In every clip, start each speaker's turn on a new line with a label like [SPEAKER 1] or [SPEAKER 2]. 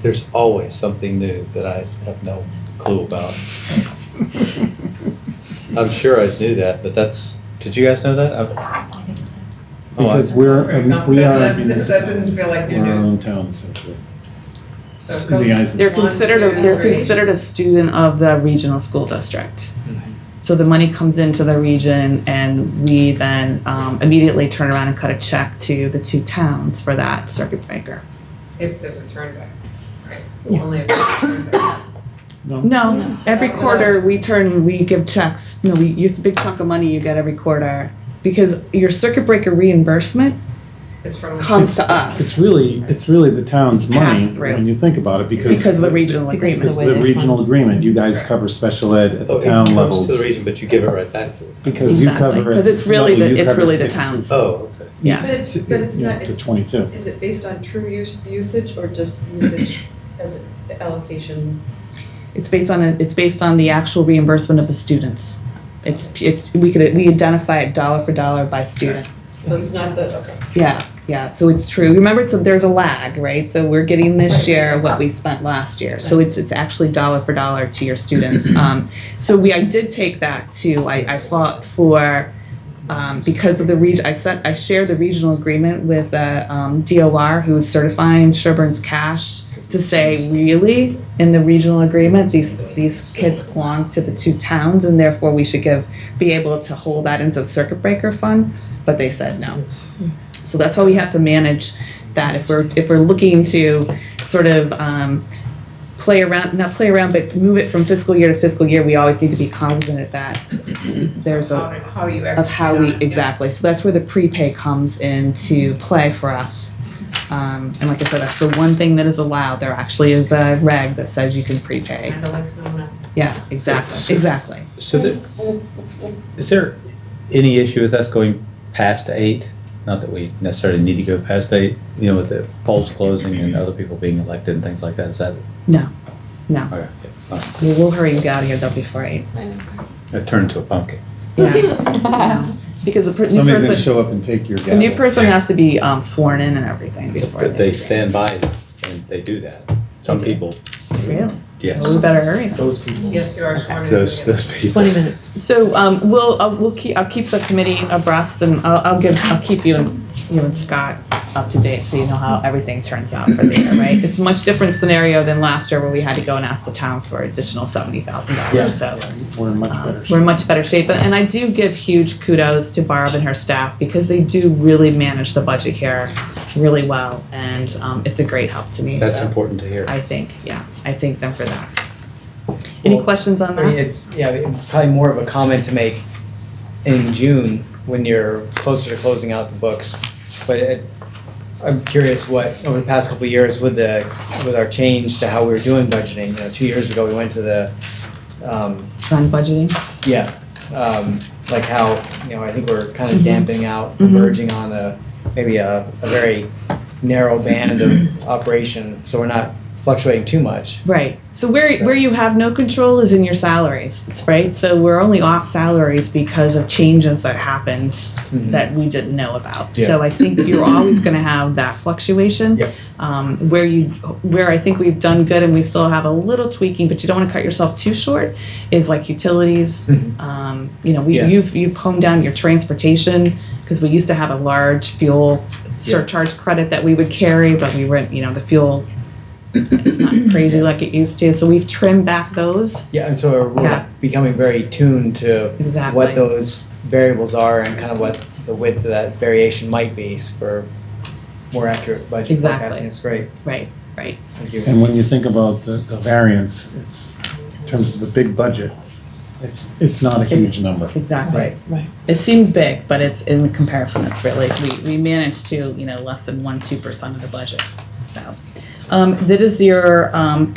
[SPEAKER 1] There's always something new that I have no clue about. I'm sure I knew that, but that's, did you guys know that? I- Oh, I-
[SPEAKER 2] Because we're, um, we are.
[SPEAKER 3] That doesn't feel like you
[SPEAKER 2] We're our own
[SPEAKER 3] do.
[SPEAKER 2] town essentially.
[SPEAKER 3] So
[SPEAKER 2] In the eyes of-
[SPEAKER 3] go-
[SPEAKER 4] They're considered,
[SPEAKER 3] One,
[SPEAKER 4] a
[SPEAKER 3] two,
[SPEAKER 4] they're
[SPEAKER 3] three.
[SPEAKER 4] considered a student of the regional school district. So the money comes into the region and we then um, immediately turn around and cut a check to the two towns for that circuit breaker.
[SPEAKER 3] If there's a turn back, right?
[SPEAKER 4] Yeah.
[SPEAKER 3] Only if there's a turn back.
[SPEAKER 4] No, every quarter we turn, we give checks, no, we use a big chunk of money you get every quarter. Because your circuit breaker reimbursement
[SPEAKER 3] It's from.
[SPEAKER 4] comes to
[SPEAKER 2] It's
[SPEAKER 4] us
[SPEAKER 2] really, it's really the town's
[SPEAKER 4] It's passed
[SPEAKER 2] money
[SPEAKER 4] through.
[SPEAKER 2] when you think about it because.
[SPEAKER 4] because of the regional agreement.
[SPEAKER 2] Because of the regional agreement. You guys
[SPEAKER 3] Right.
[SPEAKER 2] cover special ed at
[SPEAKER 1] Oh,
[SPEAKER 2] the
[SPEAKER 1] it
[SPEAKER 2] town
[SPEAKER 1] comes
[SPEAKER 2] levels.
[SPEAKER 1] To the region, but you give it right back to us.
[SPEAKER 2] Because you
[SPEAKER 4] Exactly,
[SPEAKER 2] cover.
[SPEAKER 4] 'cause it's really the- it's really the
[SPEAKER 2] town.
[SPEAKER 4] towns.
[SPEAKER 1] Oh, okay.
[SPEAKER 4] Yeah.
[SPEAKER 5] But it's, but it's not,
[SPEAKER 2] To
[SPEAKER 5] it's,
[SPEAKER 2] twenty-two.
[SPEAKER 5] is it based on true use, usage or just usage as the allocation?
[SPEAKER 4] It's based on, a- it's based on the actual reimbursement of the students. It's, it's, we could, we identify it dollar for dollar by student.
[SPEAKER 5] So it's not the, okay.
[SPEAKER 4] Yeah, yeah, so it's true. Remember, it's, there's a lag, right? So we're getting this year what we spent last year. So it's, it's actually dollar for dollar to your students. Um, so we, I did take that too. I, I fought for, um, because of the region, I sent, I shared the regional agreement with, uh, um, DOR, who is certifying Sherburne's cash to say, really, in the regional agreement, these, these kids belong to the two towns and therefore we should give, be able to hold that into the circuit breaker fund, but they said no. So that's why we have to manage that if we're if we're looking to sort of um, play around, not play around, but move it from fiscal year to fiscal year. We always need to be cognizant of that. There's
[SPEAKER 3] Mm-hmm. How
[SPEAKER 4] a
[SPEAKER 3] how you execute.
[SPEAKER 4] of how we
[SPEAKER 3] on it, yeah.
[SPEAKER 4] exactly. So that's where the prepay comes into play for us. Um, and like I said, that's the one thing that is allowed. There actually is a reg that says you can prepay.
[SPEAKER 3] And Alexa, no, no.
[SPEAKER 4] Yeah, exactly, exactly.
[SPEAKER 1] So the, is there any issue with us going past eight? Not that we necessarily need to go past eight, you know, with the polls closing and other people being elected and things like that, is that?
[SPEAKER 4] No, no.
[SPEAKER 1] Okay, okay, fine.
[SPEAKER 4] We'll we'll hurry and get out of here though before eight.
[SPEAKER 1] That turned into a pumpkin.
[SPEAKER 4] Yeah, yeah. Because the per- new
[SPEAKER 2] Somebody's gonna
[SPEAKER 4] person-
[SPEAKER 2] show up and take your
[SPEAKER 4] The
[SPEAKER 2] gavel.
[SPEAKER 4] new person has to be um, sworn in and everything before.
[SPEAKER 1] But they stand by it and they do that. Some people,
[SPEAKER 4] Really?
[SPEAKER 1] yes,
[SPEAKER 4] Well, we better hurry then.
[SPEAKER 2] Those people.
[SPEAKER 3] Yes, you are sworn in.
[SPEAKER 1] those, those people. Twenty minutes.
[SPEAKER 4] So um, we'll, uh, we'll keep, I'll keep the committee abreast and I'll, I'll give, I'll keep you and, you and Scott up to date so you know how everything turns out for the year, right? It's a much different scenario than last year where we had to go and ask the town for additional seventy thousand dollars, so.
[SPEAKER 2] We're in much
[SPEAKER 4] Um,
[SPEAKER 2] better. shape.
[SPEAKER 4] We're in much better shape, and I do give huge kudos to Barb and her staff because they do really manage the budget here really well, and um, it's a great help to me.
[SPEAKER 1] That's
[SPEAKER 4] so
[SPEAKER 1] important to hear.
[SPEAKER 4] I think, yeah, I thank them for that. Any
[SPEAKER 6] Well,
[SPEAKER 4] questions on
[SPEAKER 6] I mean,
[SPEAKER 4] that?
[SPEAKER 6] it's, yeah, it- probably more of a comment to make in June when you're closer to closing out the books. But it, I'm curious what, over the past couple of years with the, with our change to how we were doing budgeting, you know, two years ago, we went to the, um,
[SPEAKER 4] On budgeting?
[SPEAKER 6] yeah, um, like how, you know, I think we're kind of
[SPEAKER 4] Mhm.
[SPEAKER 6] damping out,
[SPEAKER 4] Mhm.
[SPEAKER 6] merging on a, maybe a, a very narrow band of operation, so we're not fluctuating too much.
[SPEAKER 4] Right. So where,
[SPEAKER 6] So-
[SPEAKER 4] where you have no control is in your salaries, right? So we're only off salaries because of changes that happened
[SPEAKER 6] Mhm.
[SPEAKER 4] that we didn't know about.
[SPEAKER 6] Yeah.
[SPEAKER 4] So I think you're always going to have that fluctuation.
[SPEAKER 6] Yep.
[SPEAKER 4] Um, where you, where I think we've done good and we still have a little tweaking, but you don't want to cut yourself too short, is like utilities.
[SPEAKER 6] Mhm.
[SPEAKER 4] Um, you know, we,
[SPEAKER 6] Yeah.
[SPEAKER 4] you've, you've honed down your transportation because we used to have a large fuel surcharge credit that we would carry, but we were, you know, the fuel it's not crazy like it used to. So we've trimmed back those.
[SPEAKER 6] Yeah, and so we're
[SPEAKER 4] Yeah.
[SPEAKER 6] becoming very tuned to
[SPEAKER 4] Exactly.
[SPEAKER 6] what those variables are and kind of what the width of that variation might be for more accurate budget
[SPEAKER 4] Exactly.
[SPEAKER 6] forecasting. It's great.
[SPEAKER 4] Right, right.
[SPEAKER 6] Thank you.
[SPEAKER 2] And when you think about the, the variance, it's, in terms of the big budget, it's, it's not a
[SPEAKER 4] It's-
[SPEAKER 2] huge number.
[SPEAKER 4] Exactly.
[SPEAKER 6] Right.
[SPEAKER 4] It seems big, but it's in comparison, it's really, we, we manage to, you know, less than one, two percent of the budget, so. Um, that is your, um,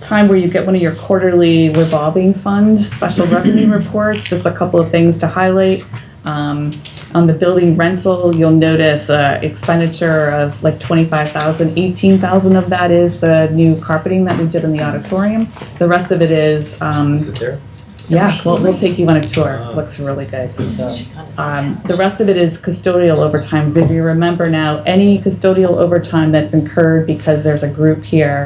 [SPEAKER 4] time where you get one of your quarterly revolving fund special revenue reports, just a couple of things to highlight. Um, on the building rental, you'll notice, uh, expenditure of like twenty-five thousand, eighteen thousand of that is the new carpeting that we did in the auditorium. The rest of it is, um,
[SPEAKER 1] Is it there?
[SPEAKER 4] yeah, we'll, we'll take you on a tour. Looks really good. Um, the rest of it is custodial overtime. So if you remember now, any custodial overtime that's incurred because there's a group here